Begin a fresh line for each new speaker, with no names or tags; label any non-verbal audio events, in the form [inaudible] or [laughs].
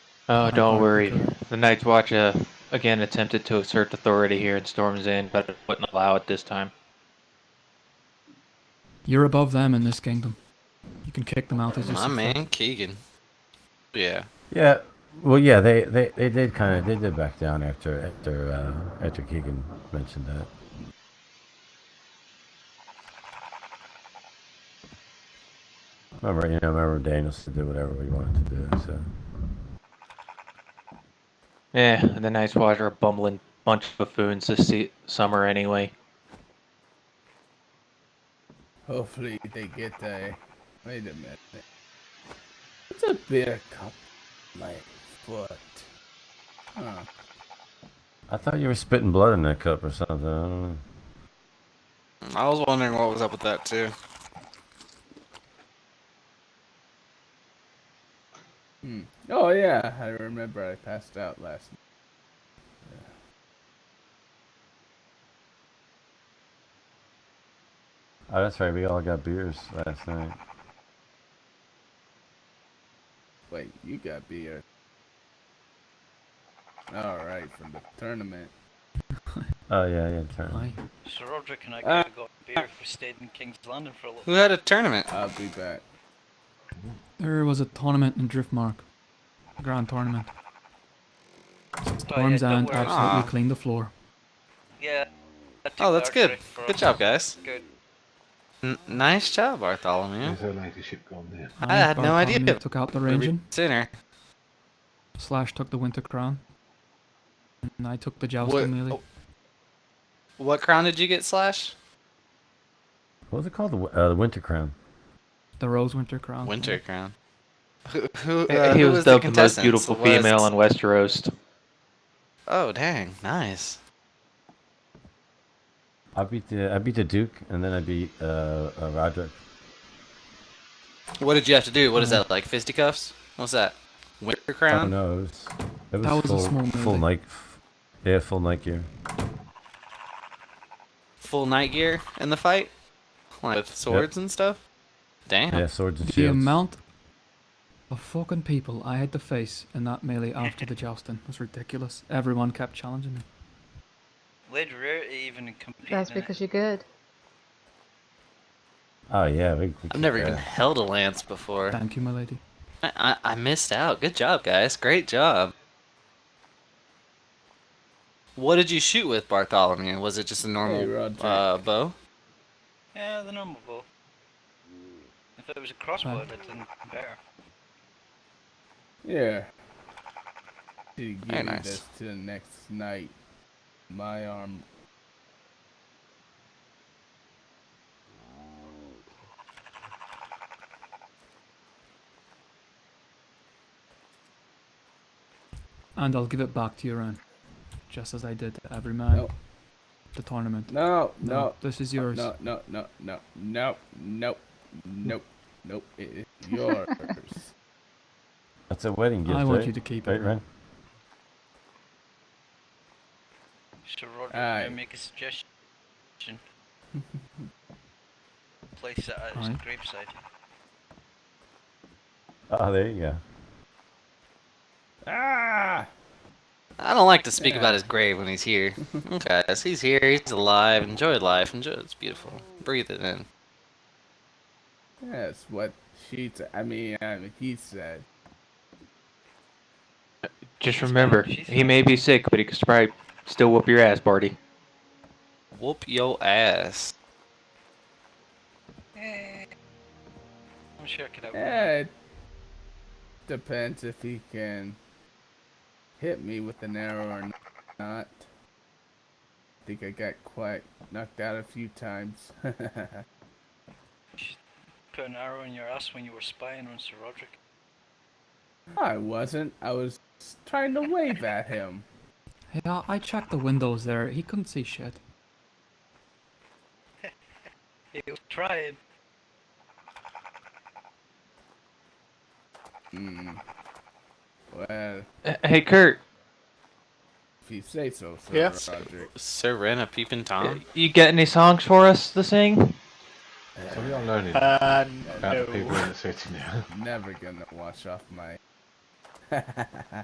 Oh, don't
Alright,
worry.
okay.
The Night's Watch uh, again attempted to assert authority here in Storm's Inn, but it wouldn't allow it this time.
You're above them in this kingdom. You can kick them out as you
My
see [laughs] fit.
man, Keegan. Yeah.
Yeah. Well, yeah, they, they, they did kind of they did back down after after uh, after Keegan mentioned that. Remember, you know, remember Daniels to do whatever we wanted to do. So
Eh, the Night's Watch are a bumbling bunch of buffoons this se- summer anyway.
Hopefully they get a. Wait a minute. It's a beer cup. My foot. Huh.
I thought you were spitting blood in that cup or something. I don't know.
I was wondering what was up with that too.
Hmm. Oh yeah, I remember I passed out last night.
Oh, that's right. We all got beers last night.
Wait, you got beer. Alright, from the tournament.
Oh yeah, yeah. Turn.
Aye.
Sir Roderick and I
Uh,
could have got beer if we stayed in King's Landing for a little
Who had a tournament?
I'll be back.
There was a tournament in Driftmark. A grand tournament.
bit. Oh,
Storm's End
Ah.
absolutely cleaned the floor.
Yeah. I took
Oh, that's
the archery
good.
for
Good
us.
job, guys.
Good.
N- nice job, Bartholomew.
Is her ladyship gone there?
I had no idea.
Bartholomew Took out the Rangin.
Sinner.
Slash took the Winter Crown. And I took the
What,
Jousting Melee.
oh, what crown did you get, Slash?
What was it called? The wi- uh, the Winter Crown.
The Rose Winter Crown.
Winter crown. Who, who,
He-
uh,
he
who
was
the
dubbed the, most
contestants?
beautiful
Was-
female in Westeros.
Oh dang, nice.
I beat the I beat the Duke, and then I beat uh, uh Roderick.
What did you have to do? What is that like? Fisticuffs? What's that? Winter
I don't
crown?
know. It was, it was,
That was a
full,
small
full
melee.
night. Yeah, full night gear.
Full night gear in the fight? Like with swords and stuff? Damn.
Yeah, swords and
The
shields.
amount of fucking people I had to face in that melee after the jousting was ridiculous. Everyone kept challenging me.
Lady Rarity even competed.
That's
in it.
because you're good.
Oh yeah, we, we
I've never
yeah.
even held a lance before.
Thank you, my lady.
I, I, I missed out. Good job, guys. Great job. What did you shoot with Bartholomew? Was it just a normal
Roderick.
uh, bow?
Yeah, the normal bow. If it was a crossbow, it'd have been better.
Yeah. To give you
nice.
this to the next night. My arm.
And I'll give it back to your own. Just as I did to every man.
Oh.
No.
The tournament.
No,
No,
no,
This is yours.
No, no, no, no, no, no, nope, nope. It is yours.
That's a wedding gift.
I want
right?
you to keep
eh? Right,
it.
Ren?
Sir Roderick,
Aye.
may I make a suggestion?
[laughs]
Place it at his
Aye.
graveside.
Oh, there you go.
ah!
I don't like to speak about his grave when he's here. guys, he's here. He's alive. Enjoy life. Enjoy. It's beautiful. Breathe it in.
That's what she said. I mean, I mean, he said.
Just remember,
she's
he may be sick, but he could probably still whoop your ass, Barty.
Whoop yo ass.
I'm sure I could have.
Eh, it depends if he can hit me with an arrow or not. think I got quite knocked out a few times. [laughs]
Put an arrow in your ass when you were spying on Sir Roderick.
I wasn't. I was trying to wave at him.
Yeah, I checked the windows there. He couldn't see shit.
He was trying.
Hmm. Well,
Eh, Hey, Kurt,
if you say so, Sir
Yeah.
Roderick.
Serena peeping Tom.
you got any songs for us to sing?
So we are learning
Uh,
about the people
no.
in the city now.
[laughs] Never gonna wash off my.